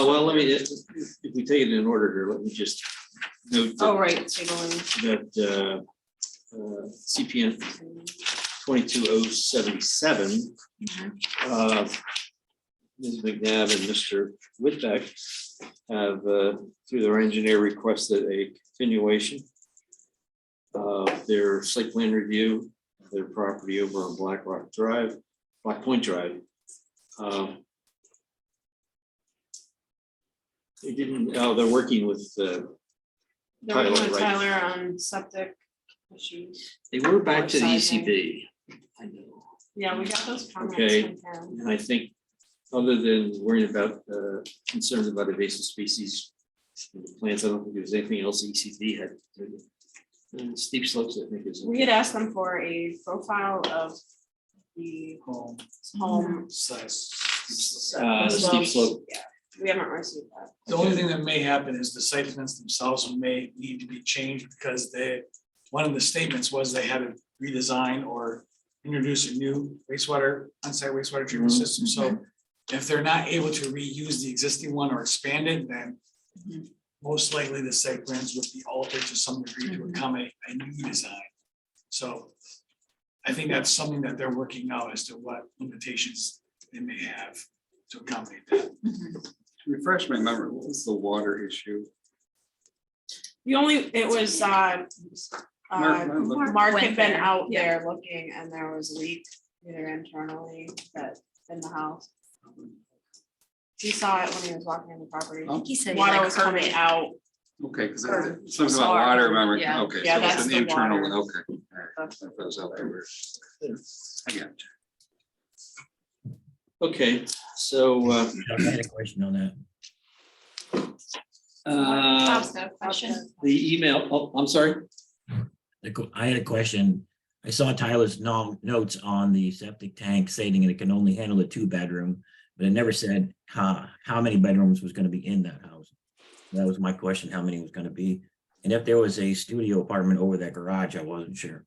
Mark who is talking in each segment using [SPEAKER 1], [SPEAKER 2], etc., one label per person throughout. [SPEAKER 1] Oh, well, let me, if, if we take it in order here, let me just note
[SPEAKER 2] Oh,
[SPEAKER 1] that,
[SPEAKER 2] right, so you're
[SPEAKER 1] that, uh, uh, CPN
[SPEAKER 2] going.
[SPEAKER 1] twenty-two oh seventy-seven. uh, Ms. McNabb and Mr. Whitbeck have, uh, through their engineer, requested a continuation of their site plan review, of their property over on Black Rock Drive, Black Point Drive. Um, They didn't, oh, they're working with, uh,
[SPEAKER 2] They're working
[SPEAKER 1] Tyler,
[SPEAKER 2] with
[SPEAKER 1] right.
[SPEAKER 2] Tyler on septic issues.
[SPEAKER 1] they were back to the
[SPEAKER 2] Downsizing.
[SPEAKER 1] ECB. I know.
[SPEAKER 2] Yeah, we got those comments
[SPEAKER 1] Okay.
[SPEAKER 2] from them.
[SPEAKER 1] And I think, other than worrying about, uh, concerns about invasive species, in the plants, I don't think there's anything else ECD had. Uh, Steep slopes, I think is.
[SPEAKER 2] We had asked them for a profile of the
[SPEAKER 3] home
[SPEAKER 2] home.
[SPEAKER 3] size.
[SPEAKER 1] Uh, steep slope.
[SPEAKER 2] Yeah, we haven't received that.
[SPEAKER 3] The only thing that may happen is the site plans themselves may need to be changed because they, one of the statements was they had to redesign or introduce a new wastewater, onsite wastewater treatment
[SPEAKER 1] Mhm.
[SPEAKER 3] system, so if they're not able to reuse the existing one or expand it, then most likely the site plans would be altered to some degree to accommodate a new design. So I think that's something that they're working out as to what limitations they may have to accommodate that.
[SPEAKER 4] Refresh my memory, what was the water issue?
[SPEAKER 2] The only, it was, uh, uh,
[SPEAKER 4] Mark- Mark-
[SPEAKER 2] Mark had
[SPEAKER 5] Went
[SPEAKER 2] been
[SPEAKER 5] there,
[SPEAKER 2] out there looking and there was a leak either internally, but in the house. He saw it when he was walking in the property.
[SPEAKER 4] Oh,
[SPEAKER 5] He said. he
[SPEAKER 2] Water
[SPEAKER 5] liked
[SPEAKER 2] was coming
[SPEAKER 5] Kermit.
[SPEAKER 2] out.
[SPEAKER 4] Okay, because
[SPEAKER 2] Or
[SPEAKER 4] something about
[SPEAKER 2] SR,
[SPEAKER 4] water, remember,
[SPEAKER 5] yeah.
[SPEAKER 4] okay,
[SPEAKER 2] Yeah,
[SPEAKER 4] so
[SPEAKER 2] that's
[SPEAKER 4] it's an
[SPEAKER 2] the
[SPEAKER 4] internal one,
[SPEAKER 2] water.
[SPEAKER 4] okay. all right,
[SPEAKER 2] That's-
[SPEAKER 4] I thought it was out there. I got it.
[SPEAKER 1] Okay, so, uh,
[SPEAKER 6] I had a question on that.
[SPEAKER 1] uh,
[SPEAKER 2] Bob's got a question.
[SPEAKER 1] the email, oh, I'm sorry,
[SPEAKER 6] The qu- I had a question. I saw Tyler's nom- notes on the septic tank stating it can only handle a two bedroom, but it never said how, how many bedrooms was gonna be in that house. That was my question, how many was gonna be? And if there was a studio apartment over that garage, I wasn't sure.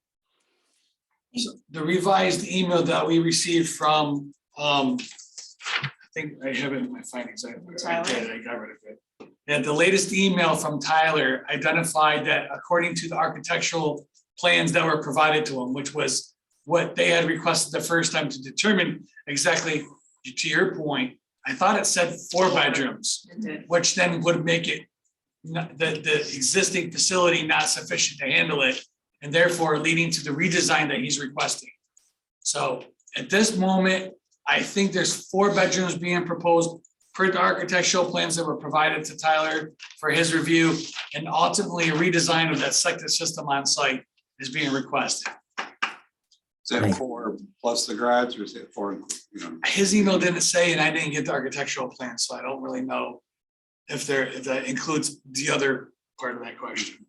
[SPEAKER 3] So The revised email that we received from, um, I think I have it in my findings, I, I
[SPEAKER 2] Tyler?
[SPEAKER 3] did, I got rid of it. And the latest email from Tyler identified that according to the architectural plans that were provided to him, which was what they had requested the first time to determine exactly, to your point, I thought it said four bedrooms,
[SPEAKER 2] It did.
[SPEAKER 3] which then would make it not, the, the existing facility not sufficient to handle it, and therefore leading to the redesign that he's requesting. So at this moment, I think there's four bedrooms being proposed per the architectural plans that were provided to Tyler for his review, and ultimately a redesign of that septic system on site is being requested.
[SPEAKER 4] Is that
[SPEAKER 6] Right.
[SPEAKER 4] four plus the garage or is it four, you know,
[SPEAKER 3] His email didn't say, and I didn't get the architectural plan, so I don't really know if there, if that includes the other part of that question.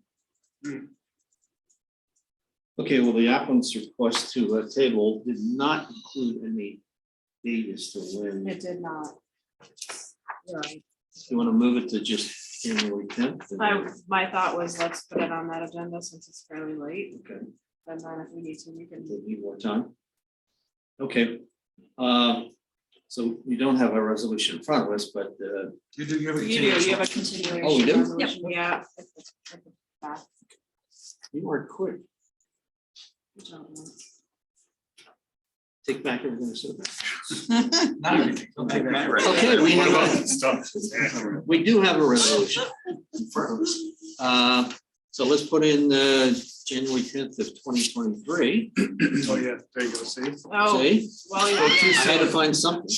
[SPEAKER 1] okay, well, the applicant's request to uh, table did not include any date as to when.
[SPEAKER 2] It did not. Right.
[SPEAKER 1] You want to move it to just January tenth?
[SPEAKER 2] My, my thought was, let's put it on that agenda since it's fairly late,
[SPEAKER 1] Okay.
[SPEAKER 2] and then if we need to, we can.
[SPEAKER 1] They need more time. Okay, uh, so we don't have a resolution in front of us, but, uh,
[SPEAKER 4] you do, you have a.
[SPEAKER 2] You do, you have a
[SPEAKER 1] Oh, we do?
[SPEAKER 2] continuation
[SPEAKER 1] Yep.
[SPEAKER 2] resolution, yeah. if it's- if it's back,
[SPEAKER 1] you are quick,
[SPEAKER 2] I don't know.
[SPEAKER 1] take back everything I said.
[SPEAKER 3] Not everything.
[SPEAKER 4] Don't take that
[SPEAKER 1] Okay, we have a-
[SPEAKER 4] right.
[SPEAKER 1] We do have a resolution in front of us. Uh, so let's put in, uh, January tenth of twenty twenty-three.
[SPEAKER 3] Oh, yeah, there you go, see?
[SPEAKER 2] Oh, well,
[SPEAKER 1] So
[SPEAKER 2] yeah,
[SPEAKER 1] choose how to find something.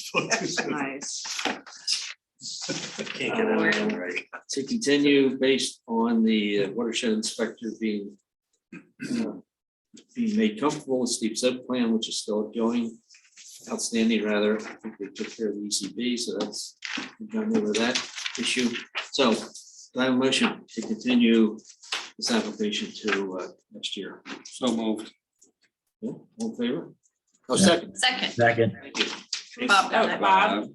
[SPEAKER 2] nice.
[SPEAKER 1] Can't get it out right. To continue based on the uh, watershed inspector being uh, being made comfortable with steep sub plan, which is still going outstanding rather. I think they took care of the ECB, so that's we've done over that issue. So do I have a motion to continue this application to uh, next year?
[SPEAKER 4] So moved.
[SPEAKER 1] Yeah, All in favor? Oh, second.
[SPEAKER 5] Second,
[SPEAKER 6] Second,
[SPEAKER 1] Thank you.
[SPEAKER 5] Bob got
[SPEAKER 2] Oh,
[SPEAKER 5] it.
[SPEAKER 2] Bob,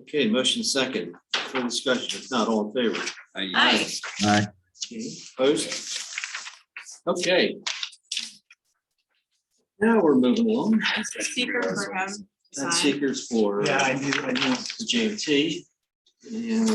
[SPEAKER 1] Okay, motion second. For discussion, if not all in favor.
[SPEAKER 4] Aye.
[SPEAKER 5] Aye.
[SPEAKER 6] aye,
[SPEAKER 1] Opposed? Okay. Now we're moving along.
[SPEAKER 2] that's the speaker for him. to
[SPEAKER 1] That's
[SPEAKER 2] sign.
[SPEAKER 1] seekers for
[SPEAKER 3] Yeah, I
[SPEAKER 1] the
[SPEAKER 3] do, I do.
[SPEAKER 1] JMT. And